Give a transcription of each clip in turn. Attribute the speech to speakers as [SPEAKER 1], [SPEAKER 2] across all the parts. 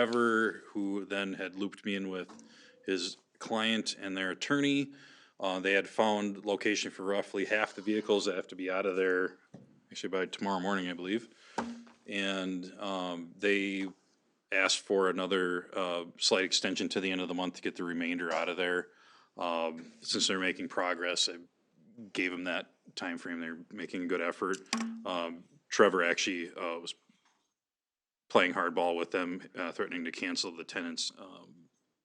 [SPEAKER 1] Trevor, who then had looped me in with his client and their attorney. Uh, they had found location for roughly half the vehicles that have to be out of there, actually by tomorrow morning, I believe. And, um, they asked for another, uh, slight extension to the end of the month to get the remainder out of there. Um, since they're making progress, I gave them that time frame. They're making a good effort. Um, Trevor actually, uh, was playing hardball with them, uh, threatening to cancel the tenant's um,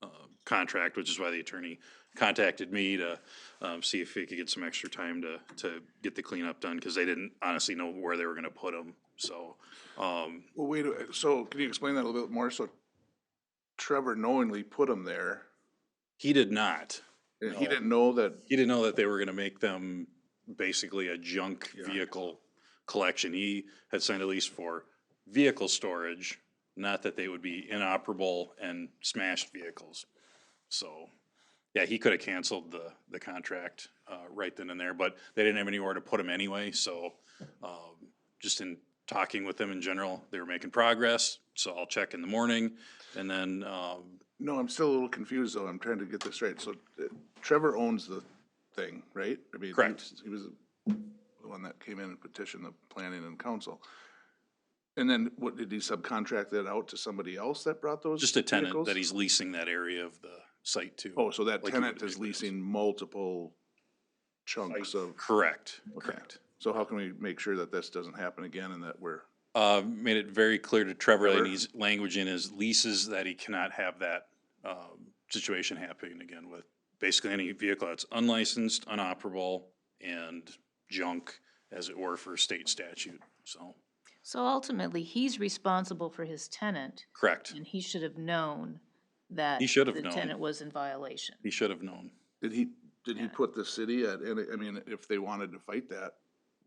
[SPEAKER 1] uh, contract, which is why the attorney contacted me to um, see if he could get some extra time to, to get the cleanup done, because they didn't honestly know where they were gonna put them, so. um,
[SPEAKER 2] Well, wait, a- so can you explain that a little bit more? So Trevor knowingly put him there
[SPEAKER 1] He did not.
[SPEAKER 2] and he
[SPEAKER 1] No.
[SPEAKER 2] didn't know that,
[SPEAKER 1] He didn't know that they were gonna make them basically a junk
[SPEAKER 2] Yeah.
[SPEAKER 1] vehicle collection. He had signed a lease for vehicle storage, not that they would be inoperable and smashed vehicles. So, yeah, he could have canceled the, the contract, uh, right then and there, but they didn't have anywhere to put him anyway, so, um, just in talking with them in general, they were making progress, so I'll check in the morning, and then, um,
[SPEAKER 2] no, I'm still a little confused though. I'm trying to get this straight. So uh, Trevor owns the thing, right? I mean, he
[SPEAKER 1] Correct.
[SPEAKER 2] was- He was the one that came in and petitioned the planning and council. And then what, did he subcontract that out to somebody else that brought those?
[SPEAKER 1] just a tenant
[SPEAKER 2] vehicles?
[SPEAKER 1] that he's leasing that area of the site to.
[SPEAKER 2] Oh, so that
[SPEAKER 1] like he
[SPEAKER 2] tenant
[SPEAKER 1] would
[SPEAKER 2] is
[SPEAKER 1] do with.
[SPEAKER 2] leasing multiple chunks of,
[SPEAKER 1] Correct,
[SPEAKER 2] Okay.
[SPEAKER 1] correct.
[SPEAKER 2] so how can we make sure that this doesn't happen again and that we're,
[SPEAKER 1] Uh, made it very clear to Trevor that
[SPEAKER 2] Trevor.
[SPEAKER 1] he's language in his leases that he cannot have that, um, situation happening again with basically any vehicle that's unlicensed, unoperable, and junk, as it were, for state statute, so,
[SPEAKER 3] So ultimately, he's responsible for his tenant,
[SPEAKER 1] correct.
[SPEAKER 3] and he should have known that.
[SPEAKER 1] He should have
[SPEAKER 3] The
[SPEAKER 1] known.
[SPEAKER 3] tenant was in violation.
[SPEAKER 1] He should have known.
[SPEAKER 2] did he, did he put the city at, and I mean, if they wanted to fight that,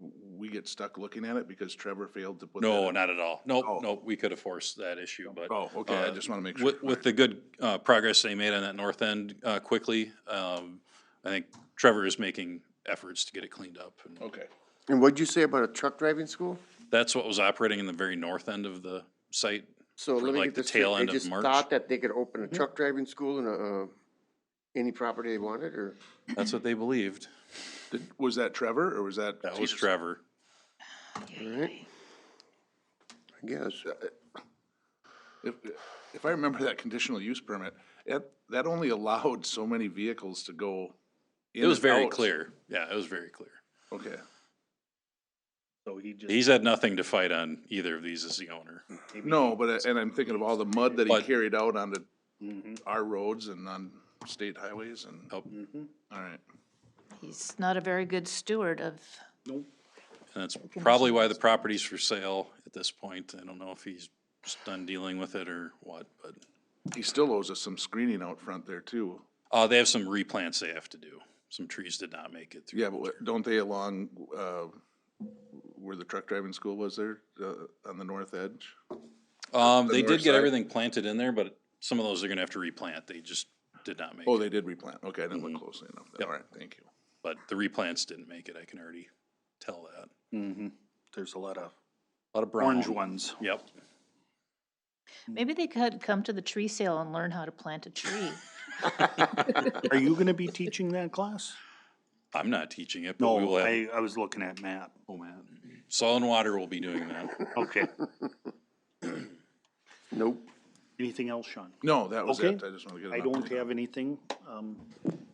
[SPEAKER 2] w- we get stuck looking at it because Trevor failed to put that.
[SPEAKER 1] No,
[SPEAKER 2] in?
[SPEAKER 1] not at all. Nope,
[SPEAKER 2] Oh.
[SPEAKER 1] nope, we could have forced that issue, but.
[SPEAKER 2] Oh, okay, I
[SPEAKER 1] uh,
[SPEAKER 2] just wanna make sure.
[SPEAKER 1] With, with the good uh, progress they made on that north end uh, quickly, um, I think Trevor is making efforts to get it cleaned up. and
[SPEAKER 2] Okay,
[SPEAKER 4] And what'd you say about a truck driving school?
[SPEAKER 1] That's what was operating in the very north end of the site.
[SPEAKER 4] So
[SPEAKER 1] For
[SPEAKER 4] let me
[SPEAKER 1] like
[SPEAKER 4] get
[SPEAKER 1] the
[SPEAKER 4] this straight,
[SPEAKER 1] tail end of
[SPEAKER 4] they just
[SPEAKER 1] March?
[SPEAKER 4] thought that they could open a truck driving school in a, uh, any property they wanted, or?
[SPEAKER 1] That's what they believed.
[SPEAKER 2] did, was that Trevor or was that?
[SPEAKER 1] That was Trevor.
[SPEAKER 4] Alright. I guess,
[SPEAKER 2] If, if I remember that conditional use permit, it, that only allowed so many vehicles to go.
[SPEAKER 1] It was very clear. Yeah, it was very clear.
[SPEAKER 2] Okay,
[SPEAKER 5] So he just.
[SPEAKER 1] He's had nothing to fight on either of these as the owner.
[SPEAKER 5] maybe
[SPEAKER 2] no, but, I- and I'm thinking of all the mud that he
[SPEAKER 1] But-
[SPEAKER 2] carried out onto
[SPEAKER 5] Mhm,
[SPEAKER 2] our roads and on state highways and,
[SPEAKER 1] Nope.
[SPEAKER 5] mhm.
[SPEAKER 2] all right.
[SPEAKER 3] He's not a very good steward of,
[SPEAKER 5] Nope.
[SPEAKER 1] And that's probably why the property's for sale at this point. I don't know if he's just done dealing with it or what, but.
[SPEAKER 2] He still owes us some screening out front there too.
[SPEAKER 1] Uh, they have some replants they have to do. Some trees did not make it through.
[SPEAKER 2] Yeah, but what- don't they along, uh, where the truck driving school was there, uh, on the north edge?
[SPEAKER 1] Um, they
[SPEAKER 2] the
[SPEAKER 1] did
[SPEAKER 2] north
[SPEAKER 1] get
[SPEAKER 2] side?
[SPEAKER 1] everything planted in there, but some of those they're gonna have to replant. They just did not make
[SPEAKER 2] Oh,
[SPEAKER 1] it.
[SPEAKER 2] they did replant. Okay, I didn't
[SPEAKER 5] Mm-hmm.
[SPEAKER 2] look closely enough.
[SPEAKER 1] Yep.
[SPEAKER 2] All right, thank you.
[SPEAKER 1] But the replants didn't make it. I can already tell that.
[SPEAKER 5] Mhm. There's a lot of
[SPEAKER 1] A lot of brown.
[SPEAKER 5] orange ones.
[SPEAKER 1] Yep.
[SPEAKER 3] maybe they could come to the tree sale and learn how to plant a tree.
[SPEAKER 5] Are you gonna be teaching that class?
[SPEAKER 1] I'm not teaching it, but we
[SPEAKER 5] No,
[SPEAKER 1] will have,
[SPEAKER 5] I, I was looking at Matt. Oh, Matt.
[SPEAKER 1] Soil and Water will be doing that.
[SPEAKER 5] Okay.
[SPEAKER 4] nope.
[SPEAKER 5] Anything else, Sean?
[SPEAKER 2] No, that was
[SPEAKER 5] Okay.
[SPEAKER 2] it. I just want to get an
[SPEAKER 5] I
[SPEAKER 2] update.
[SPEAKER 5] don't have anything. Um,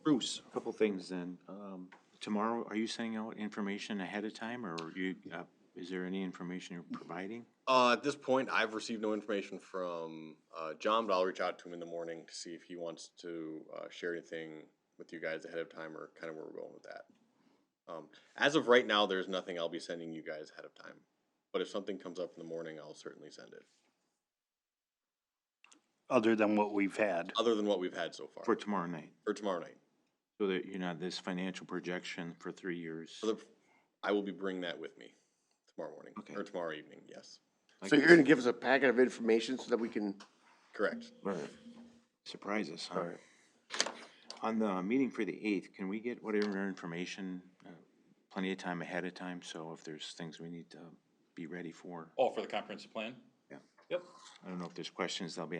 [SPEAKER 5] Bruce?
[SPEAKER 6] Couple things then. Um, tomorrow, are you sending out information ahead of time or you, uh, is there any information you're providing?
[SPEAKER 7] Uh, at this point, I've received no information from uh, John, but I'll reach out to him in the morning to see if he wants to uh, share anything with you guys ahead of time or kind of where we're going with that. Um, as of right now, there's nothing I'll be sending you guys ahead of time. But if something comes up in the morning, I'll certainly send it.
[SPEAKER 5] Other than what we've had.
[SPEAKER 7] Other than what we've had so far
[SPEAKER 6] For tomorrow night,
[SPEAKER 7] for tomorrow night,
[SPEAKER 6] so that you're not this financial projection for three years.
[SPEAKER 7] for the, I will be bringing that with me tomorrow morning
[SPEAKER 6] Okay.
[SPEAKER 7] or tomorrow evening. Yes,
[SPEAKER 6] Like
[SPEAKER 4] So you're gonna give us a packet of information so that we can,
[SPEAKER 7] correct.
[SPEAKER 6] Alright. Surprise us, huh? On the meeting for the eighth, can we get whatever information, uh, plenty of time ahead of time? So if there's things we need to be ready for,
[SPEAKER 1] Oh, for the comprehensive plan?
[SPEAKER 6] Yeah.
[SPEAKER 1] Yep.
[SPEAKER 6] I don't know if there's questions they'll be